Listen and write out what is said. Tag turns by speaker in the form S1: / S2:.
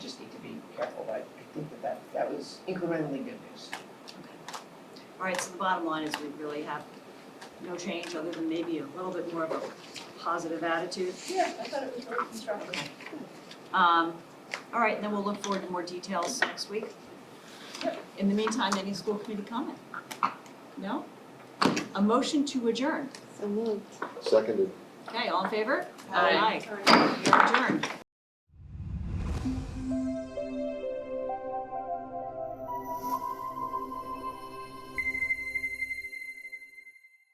S1: think that that, that was incrementally good news.
S2: All right, so the bottom line is we really have no change other than maybe a little bit more of a positive attitude.
S1: Yeah, I thought it was really constructive.
S2: Um, all right, and then we'll look forward to more details next week. In the meantime, any school committee comment? No? A motion to adjourn.
S3: So moved.
S4: Seconded.
S2: Okay, all in favor?
S1: Aye.
S2: Aye. You're adjourned.